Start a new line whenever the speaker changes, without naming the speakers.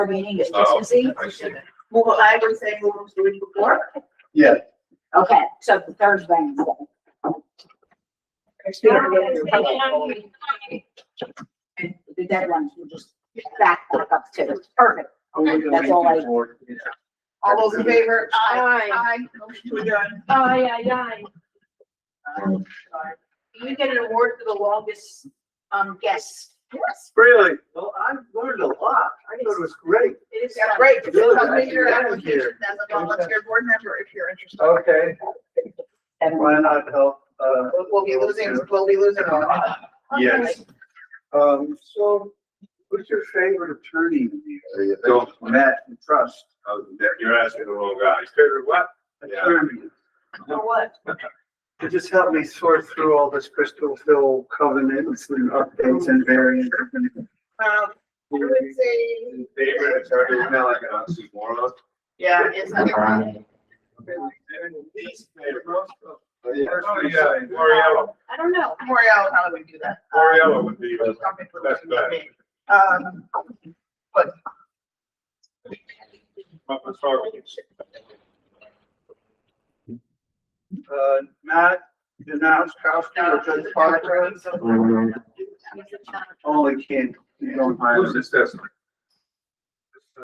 meeting is
Oh,
Tuesday.
I see.
Well, what I was saying what was the week before.
Yeah,
Okay, so the Thursday. instead. And The deadlines will just back up to, perfect. That's all I.
All those in favor?
Aye.
Aye. Motion to adjourn.
Aye, aye, aye.
You get an award for the longest, um, guest. Yes.
Really? Well, I've learned a lot. I thought it was great.
It is.
Yeah, great. Just
Really?
submit your
Yeah, I'm
application
here.
as a volunteer board member if you're interested.
Oh.
Okay,
Seven.
why not help? Uh,
We'll- We'll be losing, we'll be losing a lot.
yes. Um, so who's your favorite attorney? Don't. Matt and Trust.
You're asking the wrong guy.
Favorite what?
Yeah.
Attorney.
For what?
To just help me sort through all this Crystal Hill covenants and updates and variants.
Um, I would say,
Favorite attorney, it's not like an oxymoron.
yeah, it's not wrong.
Least favorite.
Oh, yeah.
Oh, yeah, Oriella,
I don't know.
L'Oreal, how do we do that? Um,
Oriella would be. the-
something for
That's bad.
Um,
What was wrong with
Uh, Matt, Denouskowski, or Judge Parker,
so-
only can, you know, my.
Who's this test?